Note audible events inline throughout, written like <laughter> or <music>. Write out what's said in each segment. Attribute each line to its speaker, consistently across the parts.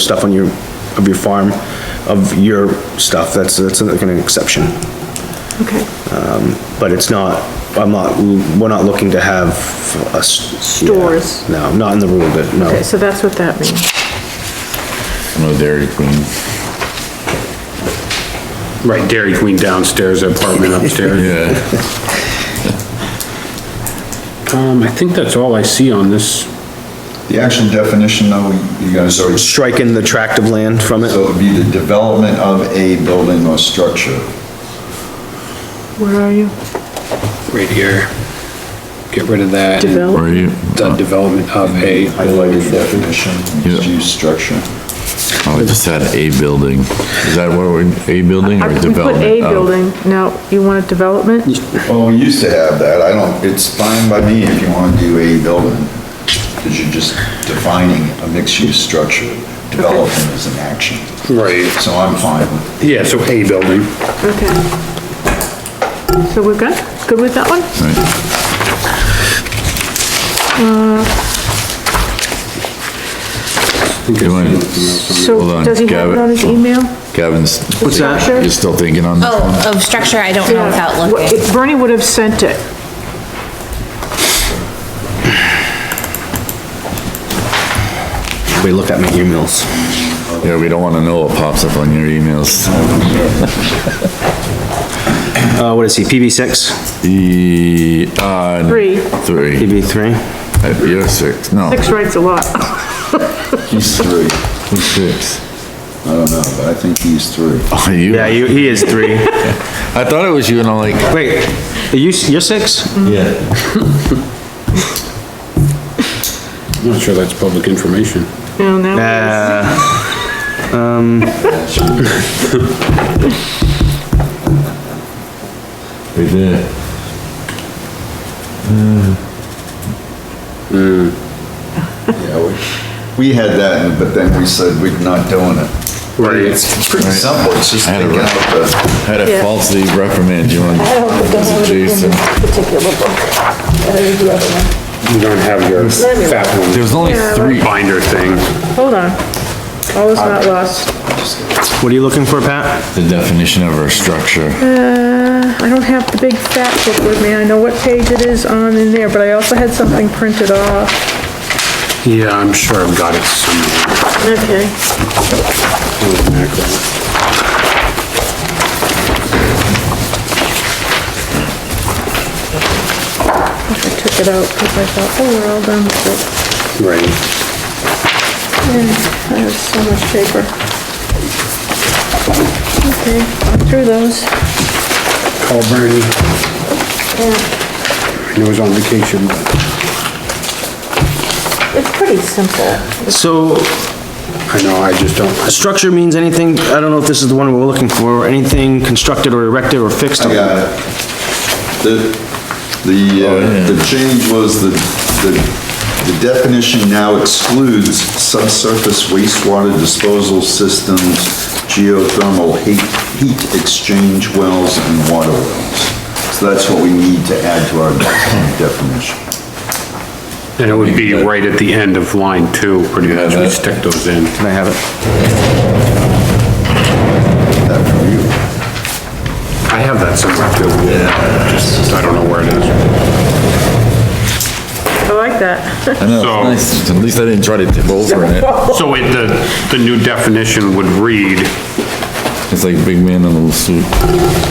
Speaker 1: stuff on your, of your farm, of your stuff, that's, that's like an exception.
Speaker 2: Okay.
Speaker 1: But it's not, I'm not, we're not looking to have us.
Speaker 2: Stores.
Speaker 1: No, not in the rule, but no.
Speaker 2: Okay, so that's what that means.
Speaker 3: No Dairy Queen.
Speaker 4: Right, Dairy Queen downstairs, apartment upstairs.
Speaker 3: Yeah.
Speaker 4: Um, I think that's all I see on this.
Speaker 5: The actual definition though, you guys are, so
Speaker 1: Striking the tract of land from it.
Speaker 5: it would be the development of a building or structure.
Speaker 2: Where are you?
Speaker 4: Right here. Get rid of that. and
Speaker 2: Develop,
Speaker 3: Right,
Speaker 4: The development of a,
Speaker 5: Highlighted definition, mixed
Speaker 3: Yeah.
Speaker 5: use structure.
Speaker 3: oh, I just had a building. Is that what we, a building
Speaker 2: I-
Speaker 3: or
Speaker 2: we put
Speaker 3: development?
Speaker 2: a
Speaker 3: Oh,
Speaker 2: building, now, you want a development?
Speaker 5: Well, we used to have that, I don't, it's fine by me if you wanna do a building, cause you're just defining a mixed use structure. Development is an action,
Speaker 4: right,
Speaker 5: so I'm fine with
Speaker 4: yeah, so a building.
Speaker 2: Okay. So we're good? Good with that one?
Speaker 3: right.
Speaker 1: Uh,
Speaker 4: I think
Speaker 3: You want-
Speaker 4: it's-
Speaker 3: Hold
Speaker 2: So,
Speaker 3: on,
Speaker 2: does he have it
Speaker 3: Gavin.
Speaker 2: on his e- email?
Speaker 3: Gavin's,
Speaker 1: What's that?
Speaker 2: Sure.
Speaker 3: you're still thinking on this one?
Speaker 6: Oh, of structure, I don't know without
Speaker 2: What-
Speaker 6: looking.
Speaker 2: if Bernie would have sent it.
Speaker 1: Everybody look at my emails.
Speaker 3: Yeah, we don't wanna know what pops up on your emails.
Speaker 1: Uh, what is he, PB six,
Speaker 3: E, uh,
Speaker 2: Three,
Speaker 3: three.
Speaker 1: PB three?
Speaker 3: Uh, You're six, no,
Speaker 2: six writes a lot. <laughs>
Speaker 5: He's three,
Speaker 3: who's six?
Speaker 5: I don't know, but I think he's <laughs> three.
Speaker 3: Oh, you,
Speaker 1: Yeah, you, he is
Speaker 4: <laughs>
Speaker 1: three.
Speaker 3: I thought it was you and I'm like,
Speaker 1: Wait, are you, you're six? <laughs>
Speaker 3: yeah.
Speaker 4: I'm not sure that's public information.
Speaker 2: No, now,
Speaker 1: Uh,
Speaker 3: We did.
Speaker 5: Yeah, we- We had that, but then we said we're not doing it.
Speaker 4: Right.
Speaker 5: It's pretty simple, it's just
Speaker 3: I had a
Speaker 5: thinking
Speaker 3: rough-
Speaker 5: out the.
Speaker 3: Had to falsely reprimand you on. Jason.
Speaker 4: You don't have your fat one
Speaker 3: There's only three.
Speaker 4: binder thing.
Speaker 2: hold on. All is not lost.
Speaker 1: what are you looking for, Pat?
Speaker 3: The definition of our structure.
Speaker 2: Uh, I don't have the big fat book with me, I know what page it is on in there, but I also had something printed off.
Speaker 4: Yeah, I'm sure I've got it somewhere.
Speaker 2: Okay.
Speaker 4: Holy mackerel.
Speaker 2: I took it out because I thought, oh, we're all done with it. Yeah,
Speaker 4: Right.
Speaker 2: Mm, I have so much paper. Okay, I'm through those.
Speaker 4: Call Bernie. I know he's on vacation, but
Speaker 2: It's pretty simple.
Speaker 1: So,
Speaker 4: I know, I just don't.
Speaker 1: Structure means anything, I don't know if this is the one we're looking for, anything constructed or erected or fixed.
Speaker 5: I got it. The, the, uh, the change was the, the the definition now excludes subsurface wastewater disposal systems, geothermal heat, heat exchange wells and water wells. So that's what we need to add to our definition.
Speaker 4: And it would be right at the end of line two, pretty much, we stick those in.
Speaker 1: Can I have it?
Speaker 5: That from you.
Speaker 4: I have that somewhere too. Yeah. Just, I don't know where it is.
Speaker 2: I like that.
Speaker 3: I know,
Speaker 4: So-
Speaker 3: it's nice. At least I didn't try to tip over <laughs> in it.
Speaker 4: So it, the, the new definition would read,
Speaker 3: It's like big man in a little suit.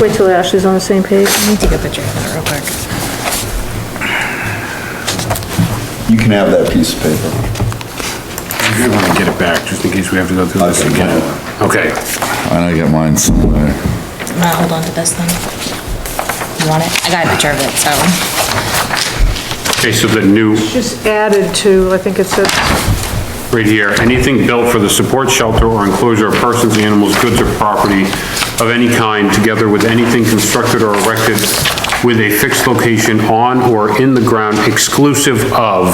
Speaker 2: Wait till Ashley's on the same page.
Speaker 6: Let me take a picture of that real quick.
Speaker 5: You can have that piece of paper.
Speaker 4: I want to get it back, just in case we have to go through this again. Okay,
Speaker 3: I got mine somewhere.
Speaker 6: I'll hold on to this then. You want it? I got a picture of it, so.
Speaker 4: okay, so the new,
Speaker 2: Just added to, I think it said,
Speaker 4: right here, anything built for the support shelter or enclosure of persons, animals, goods, or property of any kind, together with anything constructed or erected with a fixed location on or in the ground exclusive of,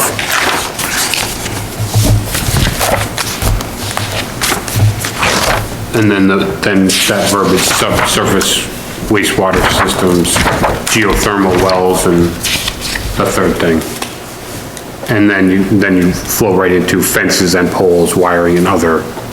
Speaker 4: and then the, then that verbiage, subsurface wastewater systems, geothermal wells, and the third thing. And then you, then you flow right into fences and poles, wiring and other